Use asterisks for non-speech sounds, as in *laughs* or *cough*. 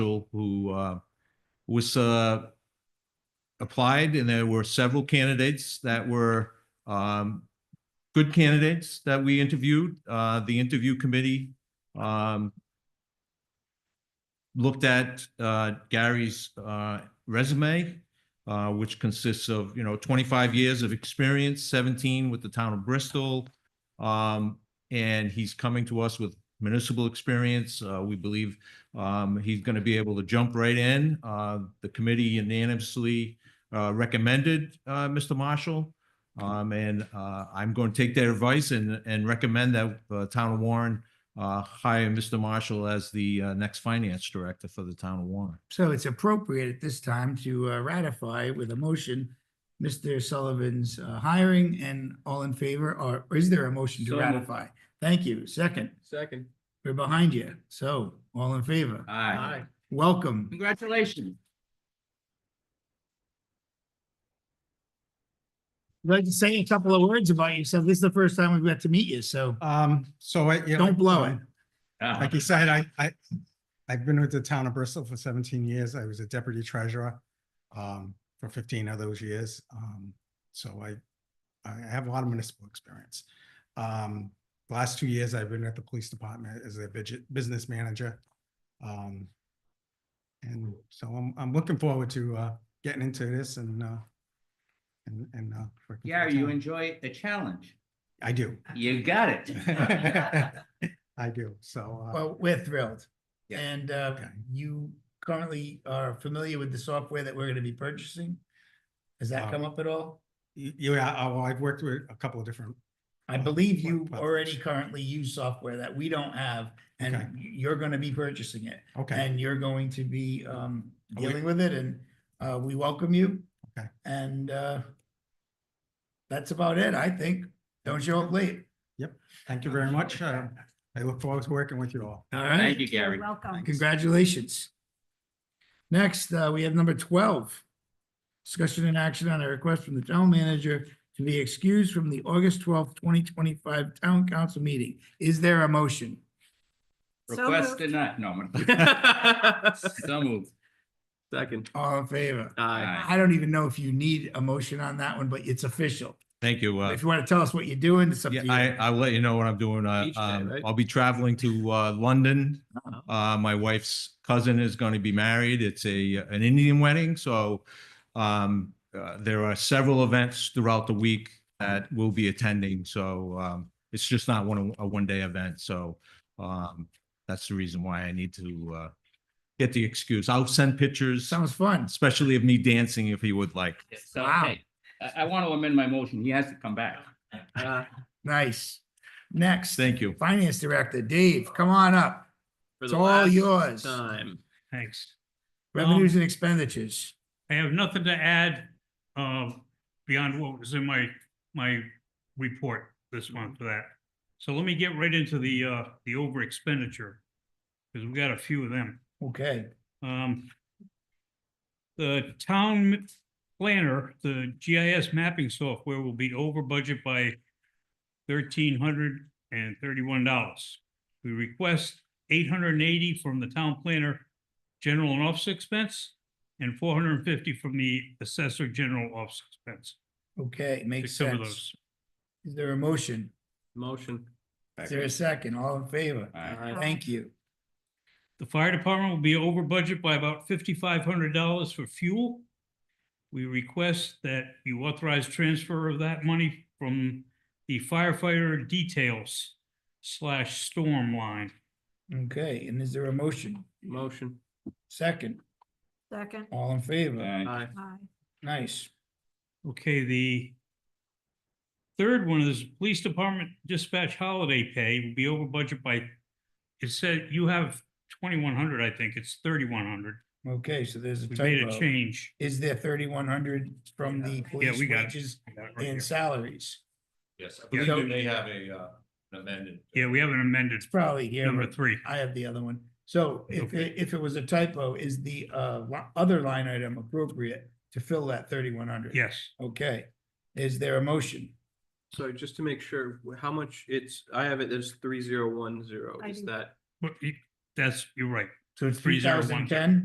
individual who uh, was uh, applied, and there were several candidates that were um, good candidates that we interviewed. Uh, The interview committee um, looked at uh, Gary's uh, resume, uh, which consists of, you know, 25 years of experience, 17 with the town of Bristol. Um, And he's coming to us with municipal experience. Uh, We believe um, he's going to be able to jump right in. Uh, The committee unanimously uh, recommended uh, Mr. Marshall. Um, And uh, I'm going to take their advice and, and recommend that uh, Town of Warren uh, hire Mr. Marshall as the uh, next finance director for the Town of Warren. So it's appropriate at this time to uh, ratify with a motion, Mr. Sullivan's uh, hiring and all in favor, or or is there a motion to So moved. ratify? Thank you. Second, Second. we're behind you. So all in favor. Aye. Welcome. Congratulations. I'd like to say a couple of words about yourself. This is the first time we've got to meet you, so Um, so I, you know, don't blow it. Ah. Like you said, I, I, I've been with the town of Bristol for seventeen years. I was a deputy treasurer um, for fifteen of those years. Um, so I, I have a lot of municipal experience. Um, last two years, I've been at the police department as a budget, business manager. Um, and so I'm, I'm looking forward to, uh, getting into this and, uh, and, and, uh. working for the Gary, you town. enjoy the challenge. I do. *laughs* You got *laughs* it. I do. So, uh, Well, we're thrilled. Yeah. And uh, Okay. you currently are familiar with the software that we're going to be purchasing? Has that Um, come up at all? y- yeah, I- well, I've worked with a couple of different I Uh, believe what you platforms? already currently use software that we don't have Okay. and you're gonna be purchasing it. Okay, And you're going to be um Are we- dealing with it and uh we welcome you. Okay. And uh that's about it, I think. Don't show up late. thank you very much. Uh, I look forward to working with you all. All Thank right, you, Gary. Welcome. congratulations. Next, uh, we have number twelve. Discussion and action on a request from the town manager to be excused from the August twelfth, twenty twenty-five town council meeting. Is there a motion? So Request moved. denied. No, I'm gonna- *laughs* so moved. Second. All in favor? Aye. Aye. I don't even know if you need a motion on that one, but it's official. Thank you. uh, If you want to tell us what you're doing, it's up Yeah, to you. I, I'll let you know what I'm doing. Uh, Beach day, um, right? I'll be traveling to, uh, London. Oh. Uh, my wife's cousin is going to be married. It's a, an Indian wedding, so, um, uh, there are several events throughout the week that we'll be attending, so, um, it's just not one, a one-day event, so, um, that's the reason why I need to, uh, get the excuse. I'll send pictures, Sounds fun. especially of me dancing if he would like. So, Wow. hey, I, I want to amend my motion. He has to come back. Uh, Nice. Next, Thank you. Finance Director, Dave, come on up. for It's the all last uh, yours. Time. Thanks. Revenues and expenditures. I have nothing to add uh, beyond what was in my, my report this month for that. So let me get right into the, uh, the over expenditure, because we've got a few of them. Okay, Um, The town planner, the GIS mapping software will be over budget by thirteen hundred and thirty-one dollars. We request eight hundred and eighty from the town planner general and office expense and four hundred and fifty from the assessor general office expense. okay, to makes cover sense. those. Is there a motion? Motion. Is there a second? All in favor? Aye. Thank you. The fire department will be over budget by about fifty-five hundred dollars for fuel. We request that you authorize transfer of that money from the firefighter details slash storm line. Okay, and is there a motion? Motion. Second, Second. all in favor? Aye. Aye. Aye. Nice. Okay, the third one is police department dispatch holiday pay will be over budget by, it said you have twenty-one hundred, I think, it's thirty-one hundred. Okay, so there's a We made a typo. change. Is there thirty-one hundred from the police we got it. wages I got it right here. and salaries? Yes, I believe So- they have a, amended. Yeah, we have an amended It's probably here. number but- three. I have the other one. So if, Okay. it- if it was a typo, is the uh, li- other line item appropriate to fill that thirty-one hundred? Yes, Okay. Is there a motion? So just to make sure, wh- how much it's, I have it as three zero one zero. I Is do. that but you- that's, you're right. So it's three thousand 3010? ten?